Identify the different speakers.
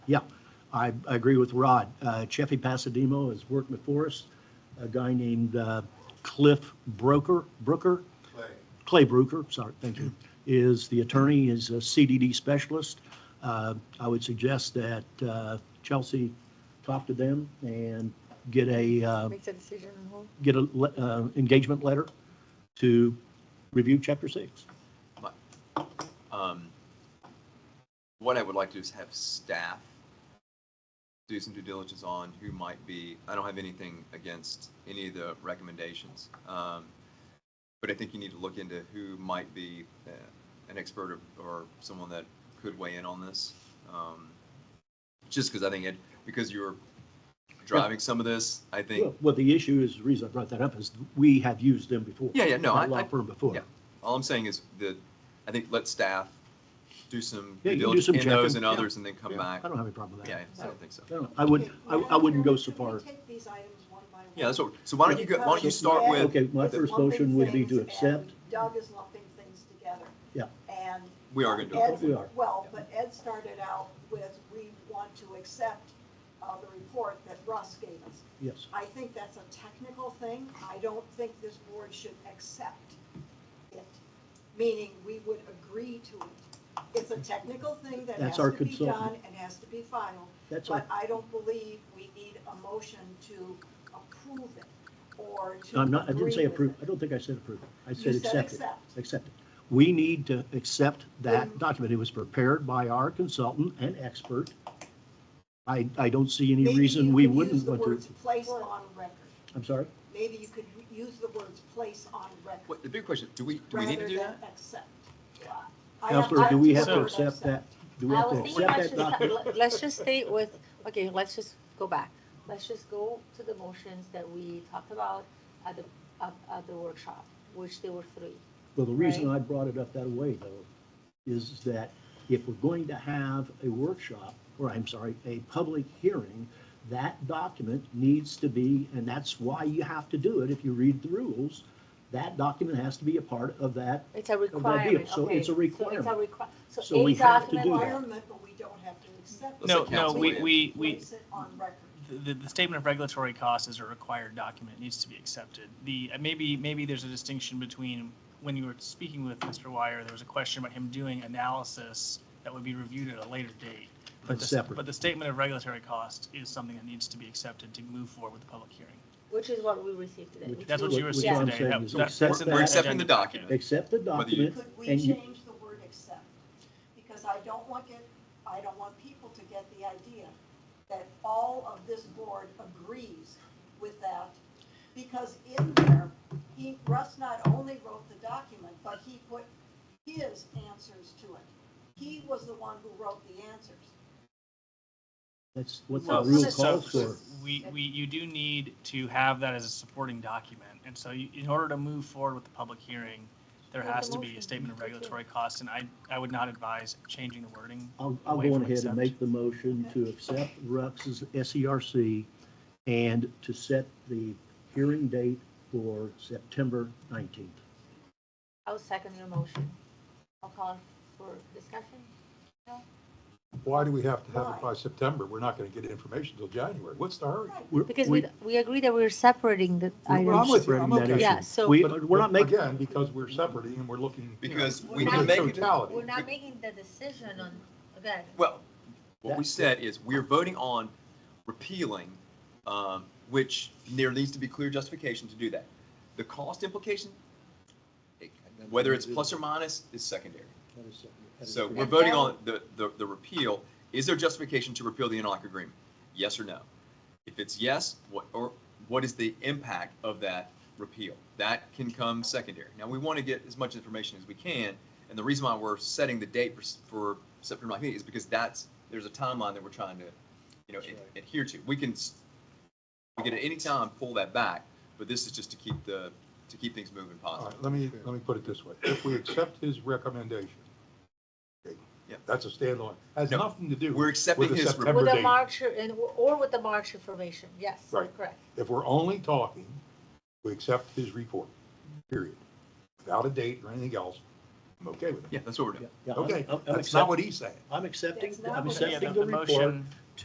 Speaker 1: Yeah, I I agree with Rod. Uh, Cheffy Pasademo has worked before us, a guy named uh, Cliff Broker, Brooker,
Speaker 2: Clay,
Speaker 1: Clay Brooker, sorry, thank you, is the attorney, is a CDD specialist. Uh, I would suggest that uh, Chelsea talk to them and get a, uh,
Speaker 3: Makes a decision on hold.
Speaker 1: get a le- uh, engagement letter to review chapter six.
Speaker 4: Um, what I would like to do is have staff do some due diligence on who might be, I don't have anything against any of the recommendations. Um, but I think you need to look into who might be uh, an expert or, or someone that could weigh in on this. Um, just because I think it, because you were driving some of this, I think,
Speaker 1: Well, Well, the issue is, the reason I brought that up is we have used them before.
Speaker 4: Yeah, yeah, no,
Speaker 1: That
Speaker 4: I-
Speaker 1: Law
Speaker 4: I-
Speaker 1: firm before.
Speaker 4: yeah. all I'm saying is that I think let staff do some
Speaker 1: Yeah,
Speaker 4: due
Speaker 1: you do
Speaker 4: diligence
Speaker 1: some
Speaker 4: in those
Speaker 1: checking.
Speaker 4: and
Speaker 1: Yeah.
Speaker 4: others and then come
Speaker 1: Yeah,
Speaker 4: back.
Speaker 1: I don't have any problem with
Speaker 4: Yeah,
Speaker 1: that.
Speaker 4: I don't think so.
Speaker 1: I don't- I wouldn't, I, I wouldn't go so
Speaker 5: Should we
Speaker 1: far.
Speaker 5: take these items one by one?
Speaker 4: Yeah, that's what, so why don't you, go- why don't you start with,
Speaker 1: Okay, my first motion would be to
Speaker 5: Lumping things, and
Speaker 1: accept.
Speaker 5: Doug is lumping things together.
Speaker 1: Yeah.
Speaker 5: And
Speaker 4: we are going to do
Speaker 1: Ed-
Speaker 4: it.
Speaker 1: We
Speaker 5: Ed,
Speaker 1: are.
Speaker 5: well, but Ed started out with, we want to accept uh, the report that Russ gave us.
Speaker 1: Yes,
Speaker 5: I think that's a technical thing. I don't think this board should accept it, meaning we would agree to it. It's a technical thing that has
Speaker 1: That's our
Speaker 5: to be done
Speaker 1: consultant.
Speaker 5: and has to be final.
Speaker 1: that's all.
Speaker 5: But I don't believe we need a motion to approve it or to.
Speaker 1: I'm not, I didn't say
Speaker 5: agree with
Speaker 1: approve. I
Speaker 5: it.
Speaker 1: don't think I said approve. I
Speaker 5: You
Speaker 1: said accept it.
Speaker 5: accept.
Speaker 1: Accept it. We need to accept that
Speaker 5: Then-
Speaker 1: document. It was prepared by our consultant and expert. I, I don't see any
Speaker 5: Maybe
Speaker 1: reason
Speaker 5: you
Speaker 1: we
Speaker 5: could
Speaker 1: wouldn't
Speaker 5: use the
Speaker 1: want to.
Speaker 5: words Place on record.
Speaker 1: I'm sorry?
Speaker 5: Maybe you could use the words place on record
Speaker 4: What, the big question, do we, do we need to
Speaker 5: rather
Speaker 4: do
Speaker 5: than
Speaker 4: that?
Speaker 5: accept.
Speaker 1: Counselor, do we have to
Speaker 6: So-
Speaker 1: accept that? Do we
Speaker 6: I
Speaker 1: have to
Speaker 6: was thinking,
Speaker 1: accept
Speaker 6: let's
Speaker 1: that
Speaker 6: just,
Speaker 1: document?
Speaker 6: let- let's just stay with, okay, let's just go back. Let's just go to the motions that we talked about at the, at, at the workshop, which there were three.
Speaker 1: Well, the reason I brought it up that way though, is that if we're going to have a workshop, or I'm sorry, a public hearing, that document needs to be, and that's why you have to do it, if you read the rules, that document has to be a part of that.
Speaker 6: It's a
Speaker 1: deal.
Speaker 6: requirement, okay.
Speaker 1: So it's a
Speaker 6: so
Speaker 1: requirement.
Speaker 6: requi-
Speaker 1: So
Speaker 6: So
Speaker 1: we
Speaker 6: a
Speaker 1: have to
Speaker 6: document.
Speaker 1: do that.
Speaker 5: Requirement, but we don't have to accept. it.
Speaker 4: Let's
Speaker 6: No,
Speaker 4: let
Speaker 6: no,
Speaker 4: council
Speaker 6: we-
Speaker 4: weigh in.
Speaker 6: we-
Speaker 5: Place it on record.
Speaker 7: the, the statement of regulatory costs is a required document, it needs to be accepted. The, uh, maybe, maybe there's a distinction between, when you were speaking with Mr. Wire, there was a question about him doing analysis that would be reviewed at a later date. But
Speaker 1: That's
Speaker 7: the-
Speaker 1: separate.
Speaker 7: But the statement of regulatory cost is something that needs to be accepted to move forward with the public hearing.
Speaker 6: Which is what we received today.
Speaker 1: Which-
Speaker 7: That's what you
Speaker 1: which
Speaker 7: received
Speaker 1: I'm
Speaker 7: today.
Speaker 1: saying
Speaker 7: That-
Speaker 1: is
Speaker 7: that's
Speaker 1: accept
Speaker 7: in the
Speaker 4: We're
Speaker 1: that-
Speaker 4: accepting the
Speaker 7: agenda.
Speaker 4: document.
Speaker 1: Accept the document
Speaker 5: Could we
Speaker 1: and you,
Speaker 5: change the word accept? Because I don't want it, I don't want people to get the idea that all of this board agrees with that. Because in there, he, Russ not only wrote the document, but he put his answers to it. He was the one who wrote the answers.
Speaker 1: that's what the
Speaker 7: Well,
Speaker 1: rule
Speaker 7: so-
Speaker 1: calls for.
Speaker 7: We, we, you do need to have that as a supporting document, and so you, in order to move forward with the public hearing, there
Speaker 6: Make a
Speaker 7: has to be
Speaker 6: motion.
Speaker 7: a statement of
Speaker 6: Thank you.
Speaker 7: regulatory costs, and I, I would not advise changing the wording.
Speaker 1: I'll, I'll
Speaker 7: Away
Speaker 1: go on
Speaker 7: from
Speaker 1: ahead and
Speaker 7: accept.
Speaker 1: make the motion to accept Rux's SERC and to set the hearing date for September 19th.
Speaker 6: I'll second your motion. I'll call for discussion.
Speaker 8: Why do we have to have
Speaker 5: Why?
Speaker 8: it by September? We're not going to get information till January. What's the hurry?
Speaker 5: Right.
Speaker 1: We're-
Speaker 6: Because
Speaker 1: we-
Speaker 6: we, we agree that we're separating the
Speaker 8: Well, I'm
Speaker 6: items.
Speaker 8: with you.
Speaker 1: Spreading
Speaker 8: I'm
Speaker 1: that
Speaker 8: okay.
Speaker 1: issue.
Speaker 6: Yeah, so-
Speaker 1: We,
Speaker 8: But-
Speaker 1: we're not
Speaker 8: but
Speaker 1: making,
Speaker 8: Again, because we're separating and we're looking. you know,
Speaker 4: Because we
Speaker 8: at
Speaker 4: can
Speaker 8: the
Speaker 4: make it,
Speaker 8: Totality.
Speaker 6: We're not making the decision on, again,
Speaker 4: well, what we said is we're voting on repealing, um, which there needs to be clear justification to do that. The cost implication, it- whether it's plus or minus, is secondary. So we're voting on the, the, the repeal. Is there justification to repeal the interlock agreement? Yes or no? If it's yes, what, or what is the impact of that repeal? That can come secondary. Now, we want to get as much information as we can. And the reason why we're setting the date for, s- for September 19th is because that's, there's a timeline that we're trying to, you know, ad- adhere to. We can, s- we can at any time pull that back, but this is just to keep the, to keep things moving
Speaker 8: All
Speaker 4: positive.
Speaker 8: right, let me, let me put it this way. If we accept his recommendation, okay,
Speaker 4: Yeah.
Speaker 8: that's a standalone, has
Speaker 4: No,
Speaker 8: nothing to do.
Speaker 4: we're accepting
Speaker 8: with the
Speaker 4: his
Speaker 8: September
Speaker 6: with the
Speaker 8: date.
Speaker 6: March, and, or with the March information, yes, you're
Speaker 8: Right.
Speaker 6: correct.
Speaker 8: If we're only talking, we accept his report, period, without a date or anything else. I'm okay with it.
Speaker 4: Yeah, that's what we're doing.
Speaker 1: Yeah, yeah, I'm-
Speaker 8: Okay,
Speaker 1: I'm- I'm
Speaker 8: that's not
Speaker 1: accept-
Speaker 8: what he's saying.
Speaker 1: I'm accepting,
Speaker 6: That's not
Speaker 1: I'm
Speaker 6: what he-
Speaker 7: Yeah,
Speaker 1: accepting
Speaker 7: the
Speaker 1: the
Speaker 7: the
Speaker 1: report.
Speaker 7: motion,